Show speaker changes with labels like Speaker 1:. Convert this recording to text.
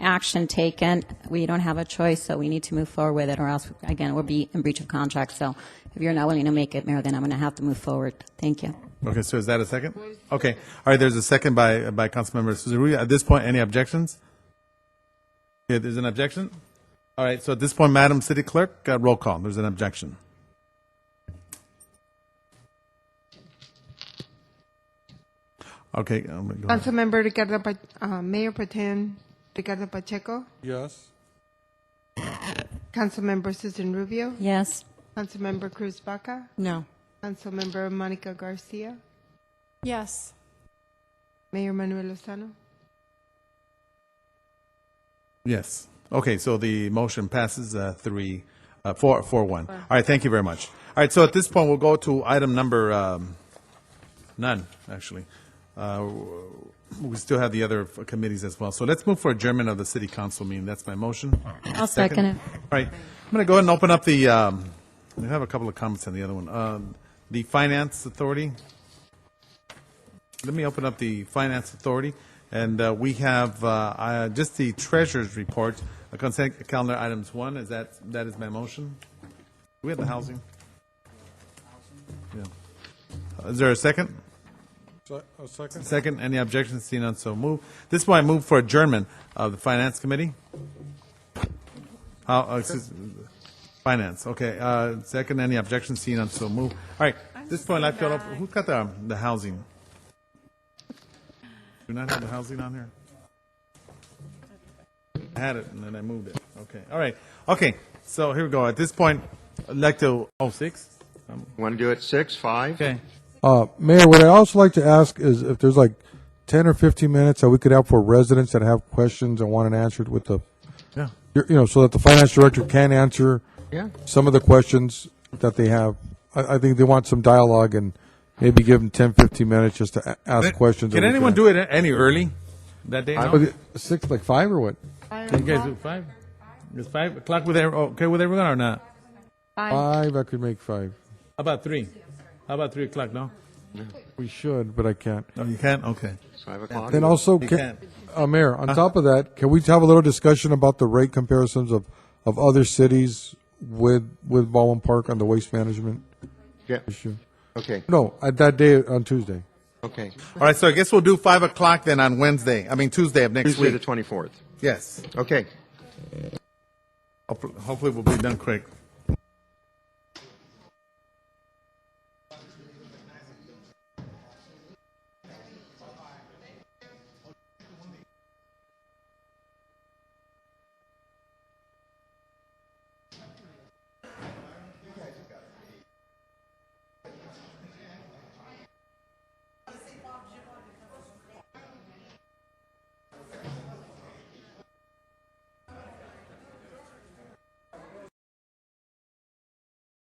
Speaker 1: action taken. We don't have a choice, so we need to move forward with it, or else, again, we'll be in breach of contract. So if you're not willing to make it, Mayor, then I'm going to have to move forward. Thank you.
Speaker 2: Okay, so is that a second? Okay, all right, there's a second by, by Councilmember Suzuki. At this point, any objections? Okay, there's an objection? All right, so at this point, Madam City Clerk, uh, roll call, there's an objection. Okay. um, go ahead.
Speaker 3: Councilmember Ricardo, Pa- uh, Mayor Protem Ricardo Pacheco,
Speaker 4: Yes.
Speaker 3: Councilmember Susan Rubio,
Speaker 1: Yes.
Speaker 3: Councilmember Cruz Baca,
Speaker 5: No.
Speaker 3: Councilmember Monica Garcia,
Speaker 5: Yes.
Speaker 3: Mayor Manuel Lozano.
Speaker 2: Yes. Okay, so the motion passes uh, three, uh, four, four, one. All right, thank you very much. All right, so at this point, we'll go to item number, um, none, actually. Uh, We still have the other committees as well. So let's move for adjournment of the city council meeting. That's my motion.
Speaker 1: I'll second it.
Speaker 2: All right, I'm going to go ahead and open up the, um, we have a couple of comments on the other one. Um, The Finance Authority. Let me open up the Finance Authority, and uh, we have uh, uh, just the Treasurer's Report, uh, consent calendar items one, is that, that is my motion? Do we have the housing? Yeah. Uh, Is there a second?
Speaker 4: Se- A second?
Speaker 2: Second, any objections, seeing none, so move. This is why I move for adjournment of the Finance Committee. How, uh, excuse- Finance, okay, uh, second, any objections, seeing none, so move. All right, this point, I feel, who's got the, um, the housing? Do not have the housing on here? I had it, and then I moved it, okay, all right, okay, so here we go, at this point, I'd like to, oh, six?
Speaker 6: Want to do it six, five?
Speaker 2: Okay,
Speaker 4: Uh, Mayor, what I also like to ask is if there's like ten or fifteen minutes that we could have for residents that have questions and want it answered with the,
Speaker 2: yeah,
Speaker 4: you you know, so that the finance director can answer
Speaker 6: Yeah.
Speaker 4: some of the questions that they have. I, I think they want some dialogue and maybe give them ten, fifteen minutes just to a- ask questions.
Speaker 2: can anyone do it any early that day? no?
Speaker 4: Six, like five or what?
Speaker 2: You guys do five? It's five o'clock with, every- okay with everyone or not?
Speaker 4: Five, I could make five.
Speaker 2: How about three? How about three o'clock, no?
Speaker 4: We should, but I can't.
Speaker 2: No, you can't, okay.
Speaker 6: Five o'clock?
Speaker 4: And also,
Speaker 2: You
Speaker 4: can,
Speaker 2: can.
Speaker 4: uh, Mayor, on top of that, can we have a little discussion about the rate comparisons of, of other cities with, with Baldwin Park on the waste management
Speaker 6: Yeah,
Speaker 4: issue?
Speaker 6: okay,
Speaker 4: No, at that day, on Tuesday.
Speaker 6: okay.
Speaker 2: All right, so I guess we'll do five o'clock then on Wednesday, I mean Tuesday of next
Speaker 6: Tuesday the
Speaker 2: week.
Speaker 6: twenty-fourth.
Speaker 2: Yes.
Speaker 6: Okay.
Speaker 2: Hopefully we'll be done quick.